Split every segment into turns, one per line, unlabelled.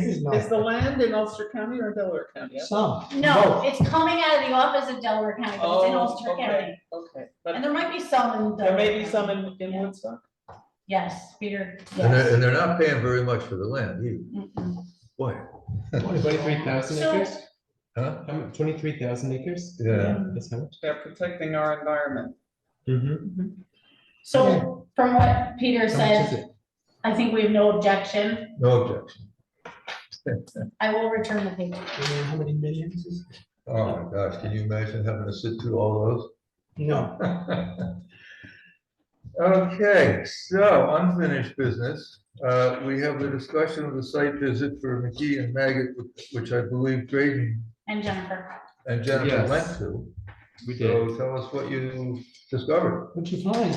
Is the land in Ulster County or Delaware County?
Some.
No, it's coming out of the office of Delaware County, but it's in
Oh,
Ulster
okay.
County,
Okay,
and
but
there might be some in.
there may
Delaware
be some
County.
in, in
Yeah.
Woodstock.
Yes, Peter,
And
yes.
they're, and they're not paying very much for the land either.
Mm-mm.
Boy,
Twenty-three thousand
So-
acres?
huh?
How much, twenty-three thousand acres?
Yeah.
That's how much?
They're protecting our environment.
Mm-hmm.
So from what Peter
How much is
said,
it?
I think we have no objection.
No objection.
I will return the paper.
Uh, How many millions is? it?
Oh my gosh, can you imagine having to sit through all those?
No.
Okay, so unfinished business. Uh, We have the discussion of the site visit for McGee and Maggot, which I believe Drayden
And Jennifer,
and Jennifer
Yes.
went to.
We did.
So tell us what you discovered.
What'd you find?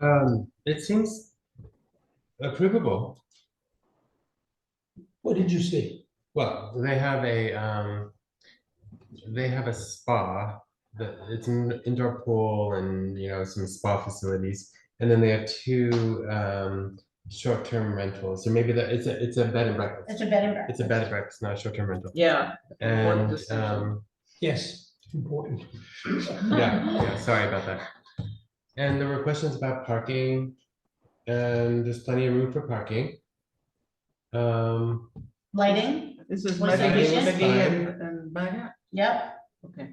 Um, it seems approvable.
What did you see?
Well, they have a, um, they have a spa that it's an indoor pool and, you know, some spa facilities. And then they have two, um, short-term rentals. So maybe that, it's a, it's a bed and
it's
breakfast.
a bed and breakfast.
It's a bed and breakfast, not a short-term rental.
Yeah. important
And,
decision.
um,
Yes, important.
Yeah, yeah, sorry about that. And there were questions about parking, and there's plenty of room for parking. Um,
Lighting,
This is
Was it
Maggie,
vicious?
Maggie and, and Maggot?
yep,
Okay.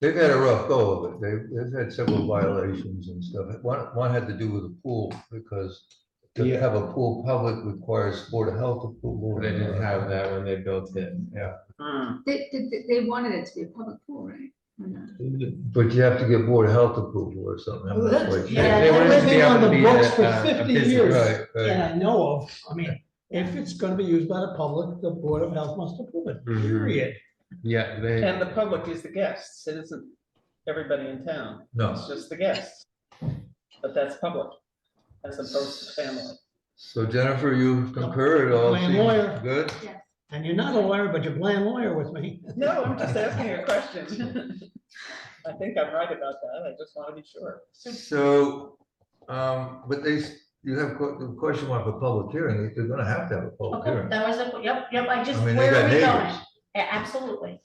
They've had a rough go of it. They've, they've had several violations and stuff. One, one had to do with the pool because to
Yeah.
have a pool public requires Board of Health approval.
they didn't have that when they built it.
Hmm.
They, they, they wanted it to be a public pool, right? Or not?
But you have to get Board of Health approval or something. I'm not quite sure.
Yeah,
They- they wanted to
That's
be
been
able
on
to
the
be
books
a-
for
a- a
50
business.
years.
Right, right.
And I know of, I mean, if it's gonna be used by the public, the Board of Health must approve it,
Mhm.
period.
Yeah, they.
And the public is the guests. It isn't everybody in town.
No.
It's just the guests. But that's public as opposed to family.
So Jennifer, you concur, it all
I am lawyer.
seems good?
And you're not a lawyer, but you're playing lawyer with me.
No, I'm just asking a question. I think I'm right about that. I just want to be sure.
So, um, but they, s- you have, que- the question mark for public hearing, they're gonna have to have a public
okay,
hearing.
that was a, yep, yep, I just,
Oh, I mean, they
where are
got
we going?
neighbors.
Yeah, Absolutely.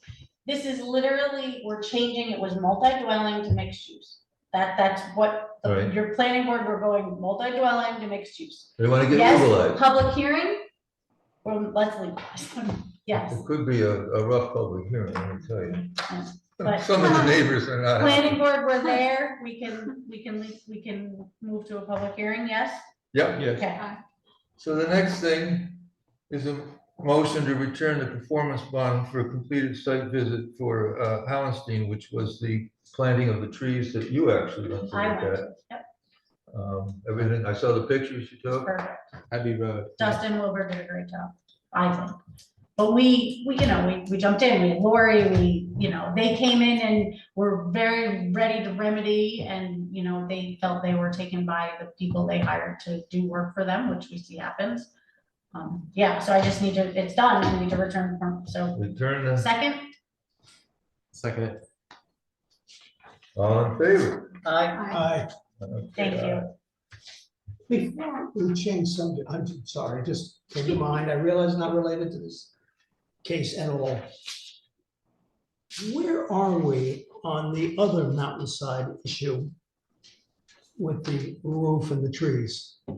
This is literally, we're changing, it was multi-dwelling to mixed use. That, that's what, the-
Right.
your planning board, we're going multi-dwelling to mixed use.
They wanna get
Yes,
legalized.
public hearing, well, let's legalize, yes,
It could be a, a rough public hearing, let me tell you.
But-
Some of the neighbors are not.
planning board, we're there, we can, we can, leave- we can move to a public hearing, yes?
Yep,
Yes,
Okay,
so the next thing is a motion to return the performance bond for a completed site visit for, uh, Hallenstein, which was the planting of the trees that you actually went to look
I went,
at.
yep.
Um, everything, I saw the pictures you took.
perfect.
Abbey Road.
Dustin Wilbur did a great job, I think. But we, we, you know, we, we jumped in, we had Lori, we, you know, they came in and were very ready to remedy and, you know, they felt they were taken by the people they hired to do work for them, which we see happens. Um, yeah, so I just need to, it's done, I need to return form, so
Return the,
second,
Second,
all in favor?
I,
I-
I,
thank you.
before we change subject, I'm sorry, just came to mind, I realize it's not related to this case at all. Where are we on the other mountainside issue with the roof and the trees?
you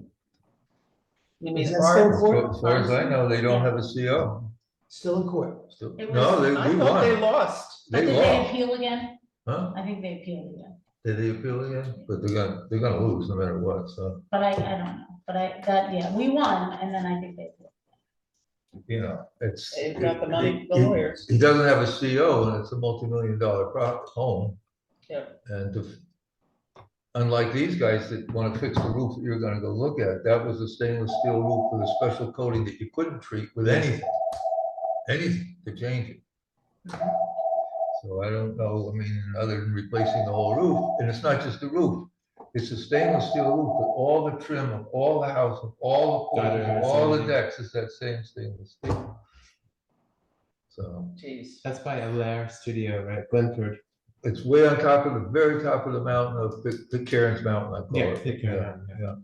Is
mean
that
Barb?
still court?
As far as I know, they don't have a CO.
Still in court?
So-
It
No,
was-
they,
I
we
thought they
won.
lost.
But
They
did they
lost.
appeal again?
Huh?
I think they appealed again,
Did they appeal again? But they're gonna, they're gonna lose no matter what, so,
but I, I don't know, but I, that, yeah, we won and then I think they appealed.
you know, it's.
They've got the money, the
he- he-
lawyers.
He doesn't have a CO and it's a multi-million dollar prop, home.
Yeah.
And to- unlike these guys that wanna fix the roof that you're gonna go look at, that was a stainless steel roof with a special coating that you couldn't treat with anything. Anything to change it. So I don't know, I mean, other than replacing the whole roof, and it's not just the roof. It's a stainless steel roof, but all the trim of all the house, of all the,
Got it, I
porches, all the
see.
decks is that same stainless steel. So.
Jeez.
that's by Alair Studio, right, Glenford.
It's way on top of the very top of the mountain of Pitcairn's Mountain, I call
Yeah,
it.
take care of that, yeah.